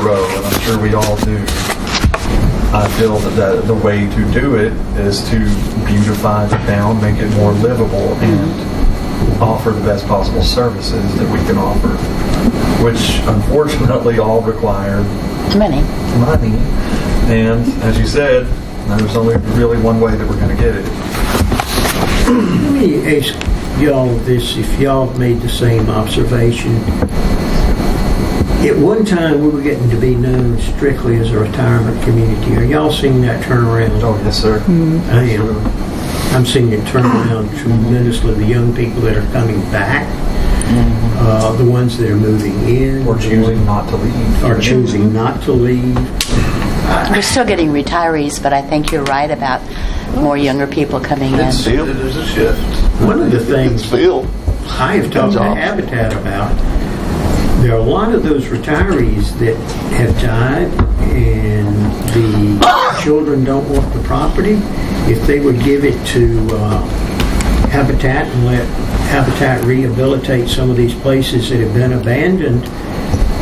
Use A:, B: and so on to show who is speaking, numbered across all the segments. A: row, and I'm sure we all do. I feel that the, the way to do it is to beautify the town, make it more livable, and offer the best possible services that we can offer, which unfortunately all require
B: Money.
A: money. And as you said, there's only really one way that we're going to get it.
C: Let me ask y'all this, if y'all have made the same observation. At one time, we were getting to be known strictly as a retirement community. Are y'all seeing that turnaround?
A: Oh, yes, sir.
C: I am. I'm seeing it turn around tremendously. The young people that are coming back, uh, the ones that are moving in.
A: Or choosing not to leave.
C: Are choosing not to leave.
B: We're still getting retirees, but I think you're right about more younger people coming in.
D: It's sealed. It is a shift.
C: One of the things
D: It's sealed.
C: I have talked to
D: Jobs.
C: Habitat about, there are a lot of those retirees that have died and the children don't want the property. If they would give it to uh, Habitat and let Habitat rehabilitate some of these places that have been abandoned,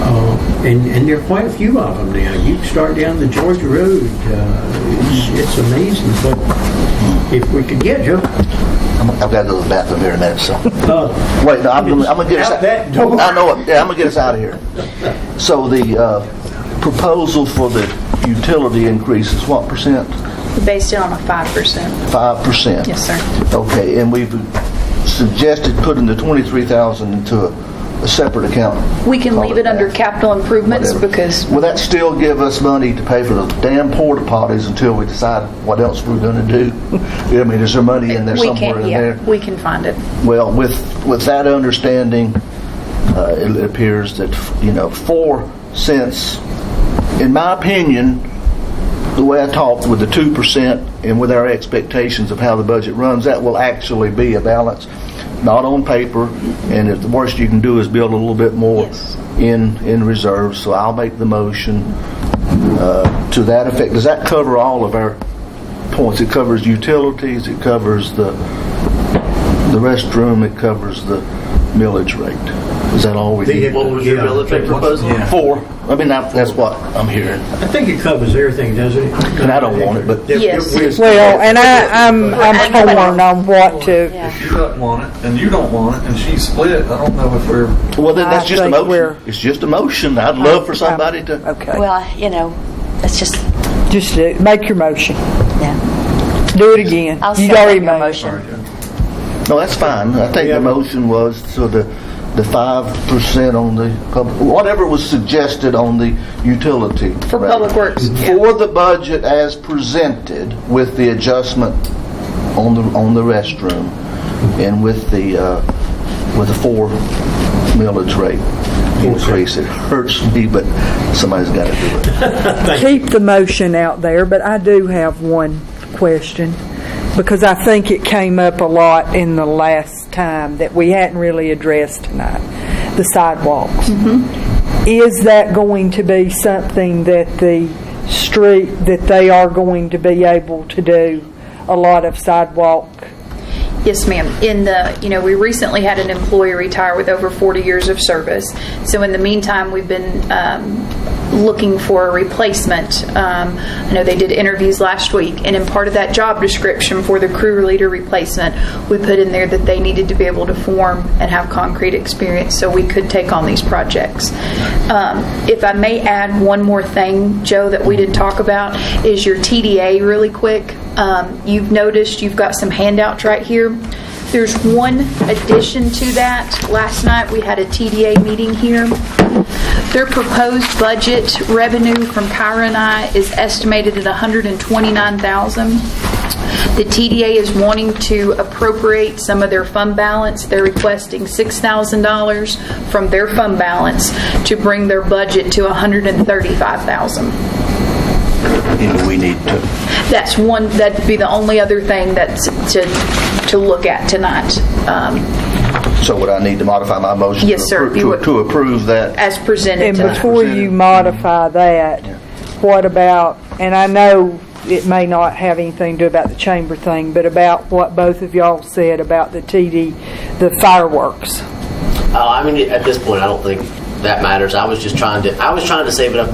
C: uh, and, and there are quite a few of them now. You start down the Georgia Road, uh, it's, it's amazing, but if we could get you,
D: I'm- I've got to go to the bathroom here in a minute, so.
C: uh,
D: Wait, no, I'm, gonna- I'm gonna get us
C: Out that door.
D: I know it. Yeah, I'm gonna get us out of here. So the uh, proposal for the utility increase is what percent?
E: based it on a 5%.
D: Five percent.
E: Yes, sir.
D: Okay, and we've suggested putting the twenty-three thousand into a, a separate account.
E: We can
D: Call
E: leave it under
D: that.
E: capital improvements
D: Whatever.
E: because
D: Will that still give us money to pay for the damn porta potties until we decide what else we're gonna do? I mean, is there money in there
E: we
D: somewhere in
E: can't,
D: there?
E: yeah, we can find it.
D: Well, with, with that understanding, uh, it appears that, you know, four cents, in my opinion, the way I talked with the 2% and with our expectations of how the budget runs, that will actually be a balance, not on paper, and if the worst you can do is build a little bit more
E: Yes.
D: in, in reserve, so I'll make the motion uh, to that effect. Does that cover all of our points? It covers utilities, it covers the, the restroom, it covers the millage rate. Is that all we need?
F: What was your
C: Yeah.
F: military proposal?
D: Four. I mean, I- that's what I'm hearing.
C: I think it covers everything, doesn't it?
D: And I don't want it, but-
E: Yes.
G: Well, and I, I'm, I'm torn on what to, um,
B: Yeah.
A: If you don't want it, and you don't want it, and she's split, I don't know if we're
D: Well, then that's
G: I
D: just a
G: think we're-
D: motion. It's just a motion. I'd love for somebody to,
G: okay,
B: Well, you know, it's just,
G: just do- make your motion,
B: yeah.
G: do it again.
B: I'll
G: You'd already
B: second your
G: made it.
B: motion.
D: no, that's fine. I think the motion was so the, the five percent on the, pub- whatever was suggested on the utility.
E: For
D: rate.
E: Public Works, yeah.
D: For the budget as presented with the adjustment on the, on the restroom and with the, uh, with the four millage rate increase. It hurts me, but somebody's got to do it.
G: keep the motion out there, but I do have one question because I think it came up a lot in the last time that we hadn't really addressed tonight the sidewalks.
B: Mm-hmm.
G: Is that going to be something that the street, that they are going to be able to do a lot of sidewalk?
E: Yes, ma'am. In the, you know, we recently had an employee retire with over 40 years of service. So in the meantime, we've been um, looking for a replacement. Um, I know they did interviews last week, and in part of that job description for the crew leader replacement, we put in there that they needed to be able to form and have concrete experience so we could take on these projects. Um, If I may add one more thing, Joe, that we didn't talk about, is your TDA really quick. Um, You've noticed you've got some handouts right here. There's one addition to that. Last night, we had a TDA meeting here. Their proposed budget revenue from Kyra and I is estimated at 129,000. The TDA is wanting to appropriate some of their fund balance. They're requesting $6,000 from their fund balance to bring their budget to 135,000.
D: And we need to,
E: That's one, that'd be the only other thing that's to, to look at tonight, um,
D: so would I need to modify my motion? to
E: Yes, sir,
D: appro-
E: you
D: to-
E: would.
D: To approve that?
E: as presented
G: And
E: tonight.
G: before you modify that, what about, and I know it may not have anything to do about the chamber thing, but about what both of y'all said about the TD, the fireworks.
F: Oh, Uh, I mean, at this point, I don't think that matters. I was just trying to, I was trying to save it up